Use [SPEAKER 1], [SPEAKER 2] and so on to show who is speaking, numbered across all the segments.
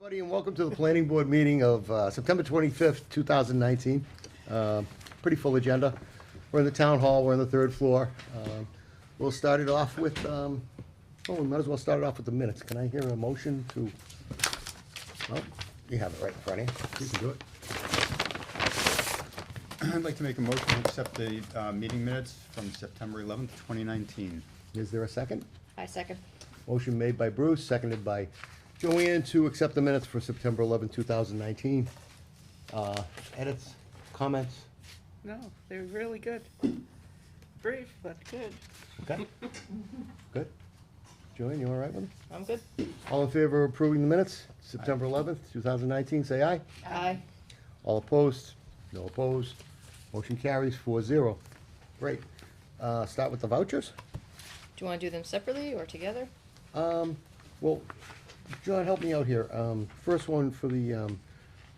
[SPEAKER 1] Buddy, and welcome to the planning board meeting of uh, September 25th, 2019. Um, Pretty full agenda. We're in the town hall, we're on the third floor. Um, We'll start it off with, um, oh, we might as well start it off with the minutes. Can I hear a motion to, well, you have it right in front of you. You can do it.
[SPEAKER 2] I'd like to make a motion to accept the uh, meeting minutes from September 11th, 2019.
[SPEAKER 1] Is there a second?
[SPEAKER 3] I second.
[SPEAKER 1] Motion made by Bruce, seconded by Joanne to accept the minutes for September 11th, 2019. Uh, Edits, comments?
[SPEAKER 4] No, they're really good. Brief, but good.
[SPEAKER 1] Okay. Good. Joanne, you all right with them?
[SPEAKER 4] I'm good.
[SPEAKER 1] All in favor of approving the minutes, September eleventh, two thousand nineteen, say aye.
[SPEAKER 3] Aye.
[SPEAKER 1] All opposed? No opposed. Motion carries four zero. Great. Uh, start with the vouchers.
[SPEAKER 3] Do you want to do them separately or together?
[SPEAKER 1] Well, John, help me out here. Um, first one for the, um,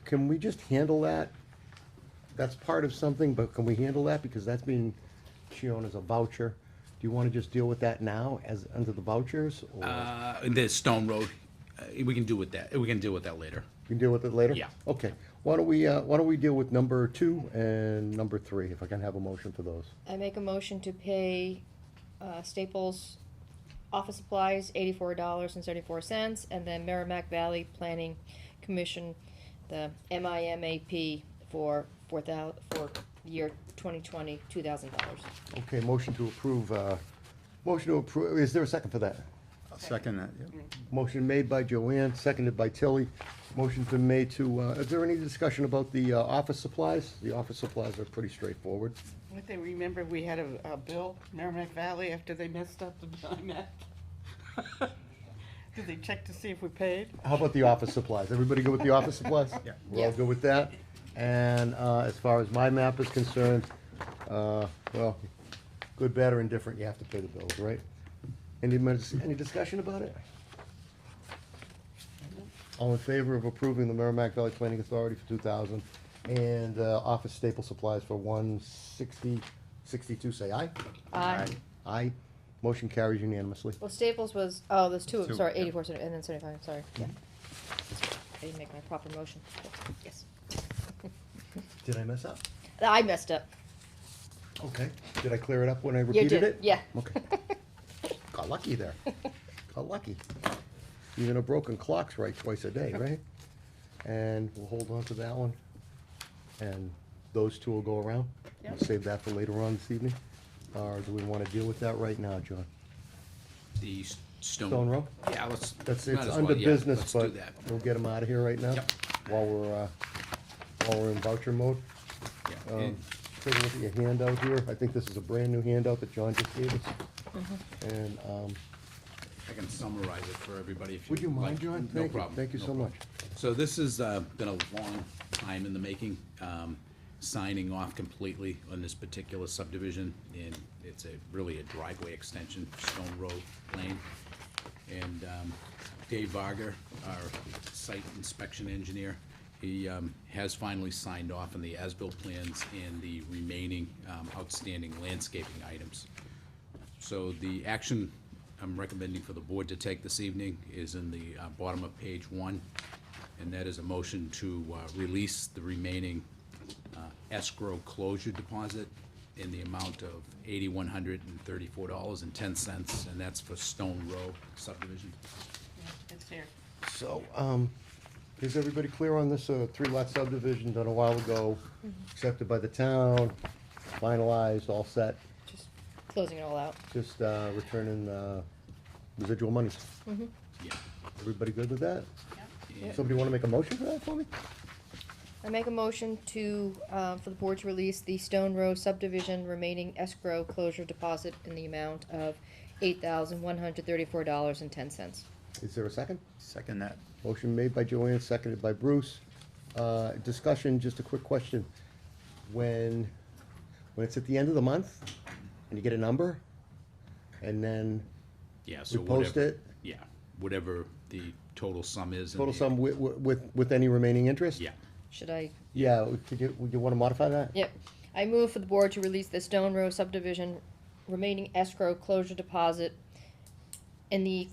[SPEAKER 1] can we just handle that? That's part of something, but can we handle that? Because that's being shown as a voucher. Do you wanna just deal with that now as, under the vouchers? or-
[SPEAKER 5] Uh, and there's Stone Road, Uh, we can deal with that, we can deal with that later.
[SPEAKER 1] We can deal with it later?
[SPEAKER 5] Yeah.
[SPEAKER 1] Okay. Why don't we, uh, why don't we deal with number two and number three, if I can have a motion for those?
[SPEAKER 3] I make a motion to pay uh, Staples Office Supplies eighty-four dollars and thirty-four cents, and then Merrimack Valley Planning Commission, the MIMAP for four thou, for year 2020, two thousand dollars.
[SPEAKER 1] Okay, motion to approve, uh, motion to approve, is there a second for that?
[SPEAKER 2] I'll second that, yeah.
[SPEAKER 1] Motion made by Joanne, seconded by Tilly. Motion's been made to, uh, is there any discussion about the, uh, office supplies? The office supplies are pretty straightforward.
[SPEAKER 4] Don't they remember we had a, a bill, Merrimack Valley, after they messed up the BIMAC? Did they check to see if we paid?
[SPEAKER 1] How about the office supplies? Everybody good with the office supplies?
[SPEAKER 2] Yeah.
[SPEAKER 1] We're all
[SPEAKER 3] Yeah.
[SPEAKER 1] good with that? And, uh, as far as my map is concerned, uh, well, good, bad, or indifferent, you have to pay the bills, right? Any, mis- any discussion about it? All in favor of approving the Merrimack Valley Planning Authority for two thousand and, uh, office staple supplies for one sixty, sixty-two, say aye?
[SPEAKER 3] Aye.
[SPEAKER 1] Aye. Motion carries unanimously.
[SPEAKER 3] Well, Staples was, oh, there's two of them,
[SPEAKER 2] Two,
[SPEAKER 3] sorry,
[SPEAKER 2] yeah.
[SPEAKER 3] eighty-four, and then seventy-five, sorry, yeah. I didn't make my proper motion, yes.
[SPEAKER 1] Did I mess up?
[SPEAKER 3] I messed up.
[SPEAKER 1] Okay. Did I clear it up when I
[SPEAKER 3] You
[SPEAKER 1] repeated
[SPEAKER 3] did,
[SPEAKER 1] it?
[SPEAKER 3] Yeah.
[SPEAKER 1] Okay. Got lucky there. Got lucky. Even a broken clock's right twice a day, right? And we'll hold on to that one. And those two will go around. We'll
[SPEAKER 4] Yep.
[SPEAKER 1] Save that for later on this evening. Or do we wanna deal with that right now, John?
[SPEAKER 5] The s- Stone.
[SPEAKER 1] Stone Row?
[SPEAKER 5] Yeah, let's.
[SPEAKER 1] That's,
[SPEAKER 5] might
[SPEAKER 1] it's
[SPEAKER 5] as
[SPEAKER 1] under
[SPEAKER 5] well, yeah,
[SPEAKER 1] business,
[SPEAKER 5] let's do
[SPEAKER 1] but
[SPEAKER 5] that.
[SPEAKER 1] we'll get them out of here right now.
[SPEAKER 5] Yep.
[SPEAKER 1] While we're, uh, while we're in voucher mode.
[SPEAKER 5] Yeah,
[SPEAKER 1] Um,
[SPEAKER 5] and-
[SPEAKER 1] Take a look at your handout here. I think this is a brand-new handout that John just gave us. And, um,
[SPEAKER 5] I can summarize it for everybody if you
[SPEAKER 1] Would you mind,
[SPEAKER 5] like.
[SPEAKER 1] John?
[SPEAKER 5] No
[SPEAKER 1] Thank you.
[SPEAKER 5] problem.
[SPEAKER 1] Thank you
[SPEAKER 5] no
[SPEAKER 1] so
[SPEAKER 5] problem.
[SPEAKER 1] much.
[SPEAKER 5] So this has uh, been a long time in the making, um, signing off completely on this particular subdivision. And it's a, really a driveway extension, Stone Road Lane. And um, Dave Varga, our site inspection engineer, he um, has finally signed off on the as-built plans and the remaining um, outstanding landscaping items. So the action I'm recommending for the board to take this evening is in the uh, bottom of page one, and that is a motion to uh, release the remaining uh, escrow closure deposit in the amount of eighty-one hundred and thirty-four dollars and ten cents, and that's for Stone Row subdivision.
[SPEAKER 4] It's here.
[SPEAKER 1] So, um, is everybody clear on this, uh, three-lot subdivision done a while ago, accepted by the town, finalized, all set,
[SPEAKER 3] Just closing it all out.
[SPEAKER 1] just, uh, returning, uh, residual monies?
[SPEAKER 5] Yeah.
[SPEAKER 1] Everybody good with that?
[SPEAKER 5] And-
[SPEAKER 1] Somebody wanna make a motion for that for me?
[SPEAKER 3] I make a motion to, uh, for the board to release the Stone Row subdivision remaining escrow closure deposit in the amount of eight thousand one hundred thirty-four dollars and ten cents.
[SPEAKER 1] Is there a second?
[SPEAKER 2] Second that.
[SPEAKER 1] Motion made by Joanne, seconded by Bruce. Uh, discussion, just a quick question. When, when it's at the end of the month, and you get a number, and then
[SPEAKER 5] Yeah, so
[SPEAKER 1] we post
[SPEAKER 5] whatever-
[SPEAKER 1] it,
[SPEAKER 5] Yeah, whatever the total sum is. in
[SPEAKER 1] total
[SPEAKER 5] the-
[SPEAKER 1] sum with, with, with any remaining interest?
[SPEAKER 5] Yeah,
[SPEAKER 3] Should I,
[SPEAKER 1] Yeah, could you, would you wanna modify that?
[SPEAKER 3] yep, I move for the board to release the Stone Row subdivision remaining escrow closure deposit in the